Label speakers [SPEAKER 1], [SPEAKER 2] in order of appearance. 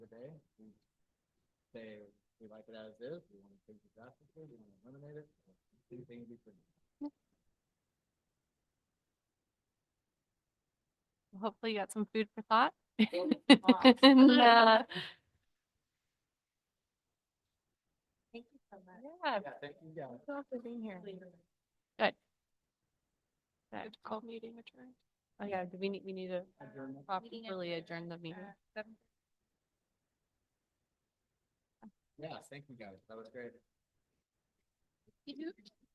[SPEAKER 1] say, we like it as is, we want to change it drastically, we want to eliminate it, or do things differently.
[SPEAKER 2] Hopefully you got some food for thought.
[SPEAKER 3] Food for thought.
[SPEAKER 2] And, uh,
[SPEAKER 3] Thank you so much.
[SPEAKER 2] yeah,
[SPEAKER 1] Yeah, thank you guys.
[SPEAKER 2] thanks for being here. Good call meeting adjourned. Oh yeah, do we need, we need to
[SPEAKER 1] Adjournment.
[SPEAKER 3] Meeting
[SPEAKER 2] properly
[SPEAKER 3] adjourned
[SPEAKER 2] adjourn the meeting.
[SPEAKER 3] Uh, seven
[SPEAKER 1] Yeah, thank you guys. That was great.
[SPEAKER 3] fifty-two.